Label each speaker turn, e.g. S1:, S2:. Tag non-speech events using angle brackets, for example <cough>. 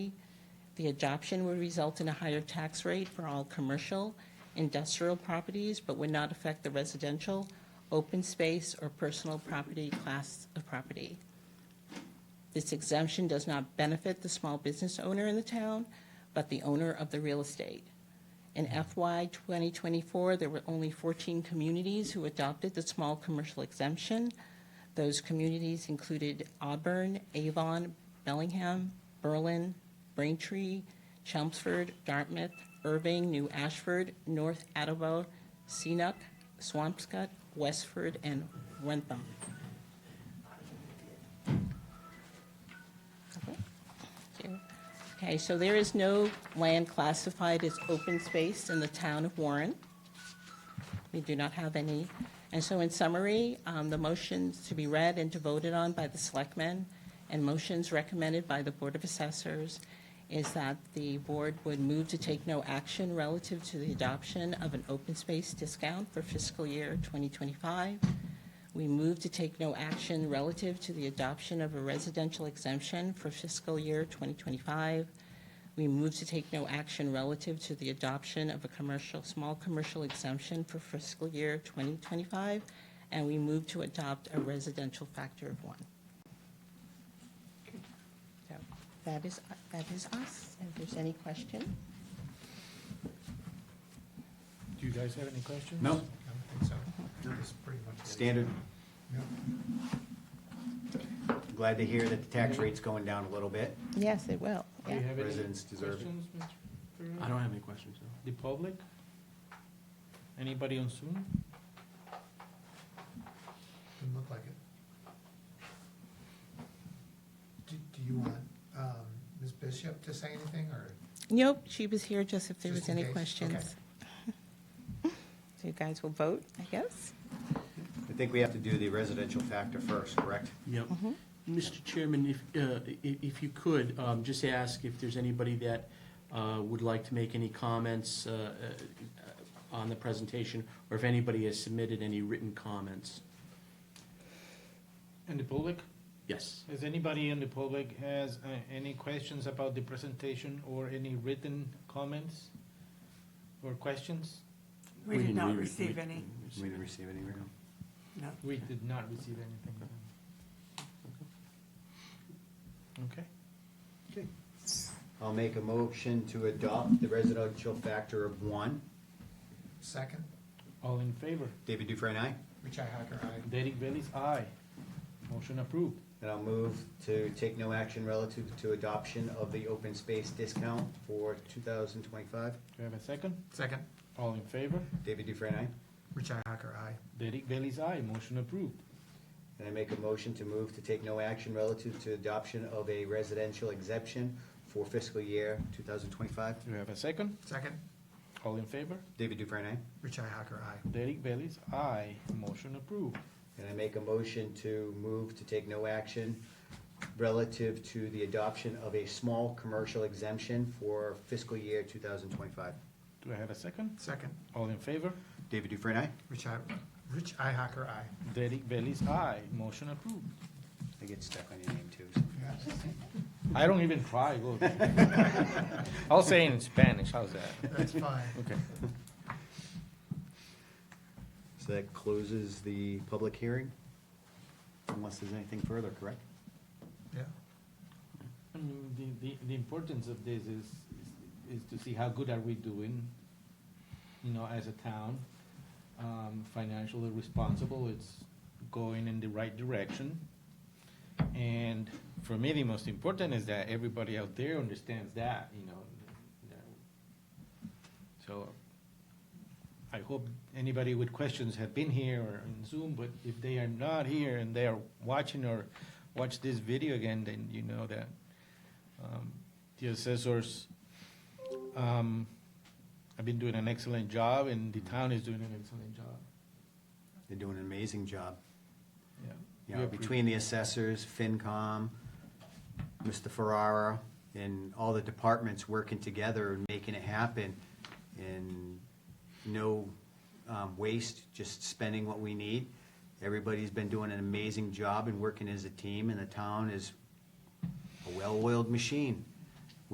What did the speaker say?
S1: The adoption would result in a higher tax rate for all commercial, industrial properties, but would not affect the residential, open space, or personal property class of property. This exemption does not benefit the small business owner in the town, but the owner of the real estate. In FY 2024, there were only 14 communities who adopted the small commercial exemption. Those communities included Auburn, Avon, Bellingham, Berlin, Braintree, Chelmsford, Dartmouth, Irving, New Ashford, North Attleboro, Seanuck, Swampscott, Westford, and Wentham. Okay, so there is no land classified as open space in the town of Warren. We do not have any. And so in summary, um, the motions to be read and to voted on by the selectmen and motions recommended by the Board of Assessors is that the board would move to take no action relative to the adoption of an open space discount for fiscal year 2025. We move to take no action relative to the adoption of a residential exemption for fiscal year 2025. We move to take no action relative to the adoption of a commercial, small commercial exemption for fiscal year 2025. And we move to adopt a residential factor of one. So That is, that is us. If there's any question?
S2: Do you guys have any questions?
S3: No.
S2: I don't think so. That's pretty much it.
S3: Standard,
S2: Yep.
S3: glad to hear that the tax rate's going down a little bit.
S1: Yes, it will.
S2: Do you have any
S3: Residents deserve it.
S2: questions, Mr. Ferrero?
S4: I don't have any questions, no.
S2: The public? Anybody on Zoom?
S5: Didn't look like it. Do, do you want, um, Ms. Bishop to say anything, or?
S1: Nope, she was here just if there
S5: Just
S1: was
S5: in
S1: any
S5: case,
S1: questions. <laughs>
S5: okay.
S1: So you guys will vote, I guess?
S3: I think we have to do the residential factor first, correct?
S4: Yep. Mr. Chairman, if, uh, i- if you could, um, just ask if there's anybody that uh, would like to make any comments uh, uh, on the presentation, or if anybody has submitted any written comments.
S2: And the public?
S4: Yes.
S2: Has anybody in the public has uh, any questions about the presentation or any written comments or questions?
S6: We did
S4: didn't
S6: not
S4: re-
S6: receive
S4: we-
S6: any,
S3: We didn't receive any, right?
S6: no.
S2: We did not receive anything. Okay.
S3: I'll make a motion to adopt the residential factor of one.
S5: Second,
S2: All in favor?
S3: David Dufresne, aye?
S5: Richi Hacker, aye.
S2: Derek Bailey's aye. Motion approved.
S3: And I'll move to take no action relative to adoption of the open space discount for two thousand twenty-five.
S2: Do you have a second?
S5: Second,
S2: All in favor?
S3: David Dufresne, aye?
S5: Richi Hacker, aye.
S2: Derek Bailey's aye. Motion approved.
S3: And I make a motion to move to take no action relative to adoption of a residential exemption for fiscal year two thousand twenty-five.
S2: Do you have a second?
S5: Second,
S2: All in favor?
S3: David Dufresne, aye?
S5: Richi Hacker, aye.
S2: Derek Bailey's aye. Motion approved.
S3: And I make a motion to move to take no action relative to the adoption of a small commercial exemption for fiscal year two thousand twenty-five.
S2: Do I have a second?
S5: Second,
S2: All in favor?
S3: David Dufresne, aye?
S5: Richi, Rich I Hacker, aye.
S2: Derek Bailey's aye. Motion approved.
S3: I get stuck on your name too. so.
S2: I don't even try. Look. <laughs> I'll say in Spanish. How's that?
S5: That's <laughs> fine.
S2: Okay.
S3: So that closes the public hearing, unless there's anything further, correct?
S5: Yeah,
S2: I mean, the, the, the importance of this is, is to see how good are we doing, you know, as a town. Um, financially responsible, it's going in the right direction. And for me, the most important is that everybody out there understands that, you know. that- So I hope anybody with questions have been here or in Zoom, but if they are not here and they are watching or watch this video again, then you know that um, the assessors um, have been doing an excellent job, and the town is doing an excellent job.
S3: They're doing an amazing job.
S2: Yeah.
S3: You know, between the assessors, FinCom, Mr. Ferrara, and all the departments working together and making it happen, and no um, waste, just spending what we need. Everybody's been doing an amazing job and working as a team, and the town is a well-oiled machine.